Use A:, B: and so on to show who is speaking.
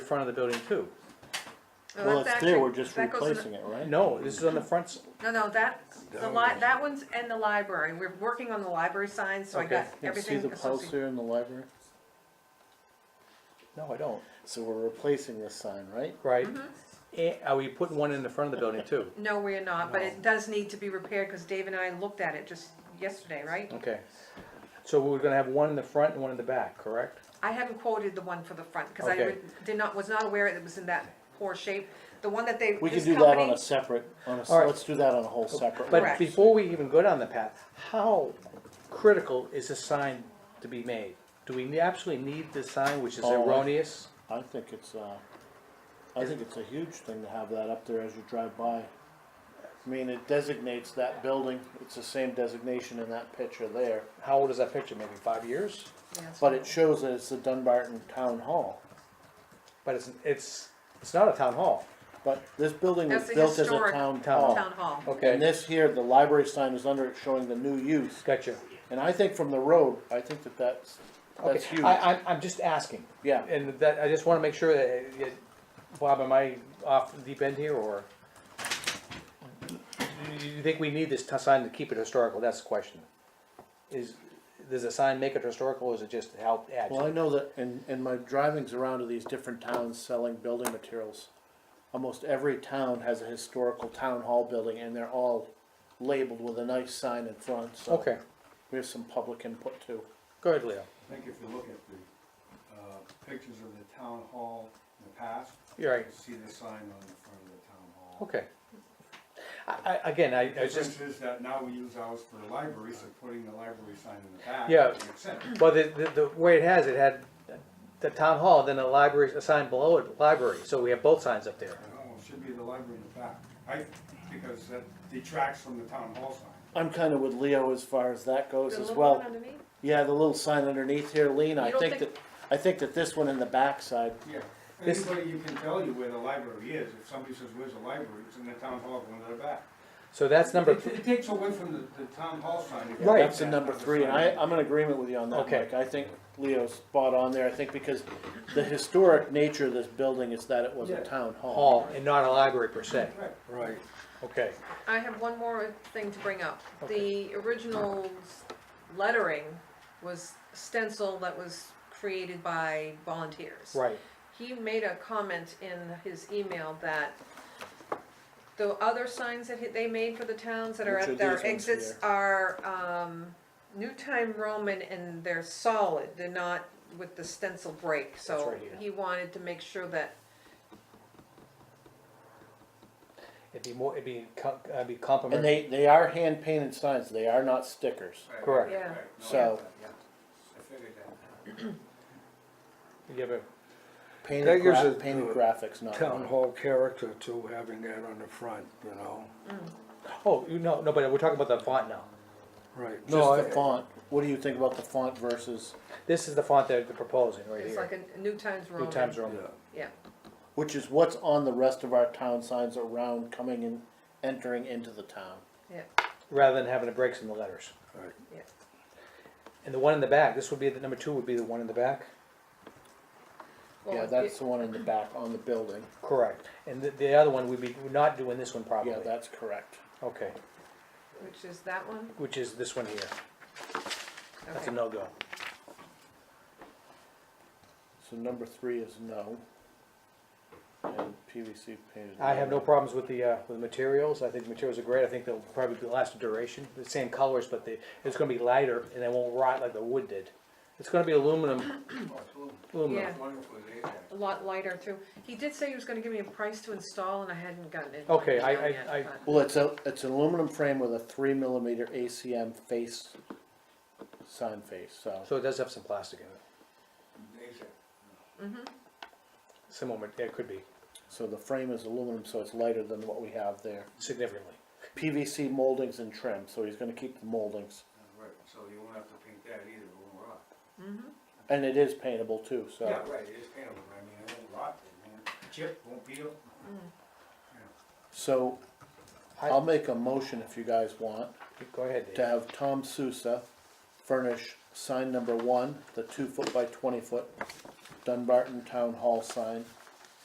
A: front of the building too.
B: No,
C: Well,
B: Oh, that's
C: it's clear,
B: actually-
C: we're just
B: that goes in the-
C: replacing it, right?
A: No, this is on the front, s-
B: No, no, that, the
D: That
B: li,
D: one.
B: that one's in the library, we're working on the library signs, so I
A: Okay.
B: got
C: You see
B: everything
C: the
B: associated.
C: pulsar in the library?
A: no, I don't,
C: So we're replacing this sign, right?
A: right? Eh, Are we putting one in the front of the building too?
B: No, we are not, but it does need to be repaired, cause Dave and I looked at it just yesterday, right?
A: Okay. So we're gonna have one in the front and one in the back, correct?
B: I haven't quoted the one for the front, cause I
A: Okay.
B: re- did not, was not aware it was in that poor shape, the one that they,
C: We can
B: this
C: do that on
B: company,
C: a separate, on a, s-
A: All right.
C: let's do that on a whole separate.
A: But
B: Correct.
A: before we even go down the path, how critical is a sign to be made? Do we absolutely need this sign, which is
C: Oh, I-
A: erroneous?
C: I think it's, uh, I think it's a huge thing to have that up there as you drive by. I mean, it designates that building, it's the same designation in that picture there,
A: How old is that picture, maybe five years?
B: Yes.
C: but it shows that it's the Dunbarton Town Hall.
A: But it's, it's, it's not a town hall.
C: But this building was
B: That's a
C: built as a
B: historic
C: town
A: town
C: hall.
B: town hall.
C: And this here, the library sign is under it showing the new use,
A: Gotcha.
C: and I think from the road, I think that that's, that's
A: Okay,
C: huge,
A: I, I'm, I'm just asking.
C: yeah.
A: And that, I just wanna make sure that, uh, yeah, Bob, am I off the deep end here, or? You- You think we need this t- sign to keep it historical, that's the question. Is, does the sign make it historical, or is it just help add?
C: Well, I know that in, in my drivings around to these different towns selling building materials, almost every town has a historical town hall building and they're all labeled with a nice sign in front, so.
A: Okay,
C: We have some public input too.
A: go ahead, Leo,
D: I think if you look at the, uh, pictures of the town hall in the past,
A: you're
D: you
A: right,
D: can see the sign on the front of the town hall.
A: okay. I, I, again, I, I
D: The
A: was just,
D: difference is that now we use ours for the library, so putting the library sign in the back.
A: Yeah.
D: makes sense.
A: well, the, the, the way it has, it had the town hall, then a library, a sign below it, library, so we have both signs up there.
D: Oh, it should be the library in the back, I, because that detracts from the town hall sign.
C: I'm kinda with Leo as far as that goes
B: The
C: as
B: little
C: well.
B: one underneath?
C: Yeah, the little sign underneath here, Lean, I
B: You don't
C: think that,
B: think-
C: I think that this one in the backside,
D: Yeah,
A: This-
D: anybody, you can tell you where the library is, if somebody says, where's the library, it's in the town hall, going to the back.
A: So that's number,
D: It it takes away from the, the town hall sign. if you
A: Right.
D: take
C: that's the
D: that
C: number
D: other
C: three, and
D: sign.
C: I, I'm in agreement with you on that,
A: Okay.
C: Mike. I think Leo's spot on there, I think because the historic nature of this building is that it was a
D: Yeah.
C: town
A: hall, and not a library per se.
D: Right.
A: Right. Okay.
B: I have one more thing to bring up.
A: Okay.
B: The original s- lettering was stencil that was created by volunteers.
A: Right,
B: He made a comment in his email that the other signs that he- they made for the towns that are
C: Which are
B: at their
C: these ones
B: exits
C: here?
B: are, um, New Time Roman and they're solid, they're not with the stencil break, so
A: right here.
B: he wanted to make sure that,
A: it'd be more, it'd be, com- uh, it'd be complimentary.
C: And they, they are hand painted signs, they are not stickers.
D: Right,
A: Correct.
D: right,
B: Yeah.
D: right. No, I
C: So-
D: get that, yeah. I figured that.
A: You have a-
C: Painted
E: That gives
C: gra-
E: it
C: painted
E: the
C: graphics, not.
E: town hall character too, having that on the front, you know,
A: oh, you no, no, but we're talking about the font now.
E: right. No,
C: Just the
E: I-
C: font, what do you think about the font versus,
A: This is the font that they're proposing right
B: it's like
A: here.
B: a New Times Roman.
A: New Times
E: Yeah,
A: Roman.
B: Yeah.
C: which is what's on the rest of our town signs around coming and entering into the town?
B: Yeah,
A: rather than having the breaks in the letters.
E: right.
B: yeah.
A: And the one in the back, this would be, the number two would be the one in the back?
B: Well,
C: Yeah,
B: it-
C: that's the one in the back on the building,
A: Correct. And the, the other one, would be, we're not doing this one properly.
C: yeah, that's correct.
A: Okay,
B: Which is that one?
A: which is this one here. That's a
B: Okay.
A: no-go.
C: So number three is no. And PVC painted.
A: I have no problems with the, uh, with the materials. I think materials are great. I think they'll probably be- last a duration, the same colors, but they, it's gonna be lighter and they won't rot like the wood did. It's gonna be aluminum,
D: oh,
A: aluminum.
B: Yeah. A lot lighter too. He did say he was gonna give me a price to install and I hadn't gotten it.
A: Okay, I-
B: down
A: I-
B: yet,
A: I-
B: but-
C: Well, it's a, it's an aluminum frame with a three millimeter ACM face, sign face, so.
A: So it does have some plastic in it, some moment, it could be
C: So the frame is aluminum, so it's lighter than what we have there.
A: significantly.
C: PVC moldings and trim, so he's gonna keep the moldings.
D: Right, so you won't have to paint that either, it won't rot.
C: And it is paintable too, so.
D: Yeah, right, it is paintable, I mean, it won't rot, it won't chip, won't peel.
C: So I'll make a motion if you guys want
A: Go ahead, Dave.
C: to have Tom Sousa furnish sign number one, the two foot by twenty foot Dunbarton Town Hall sign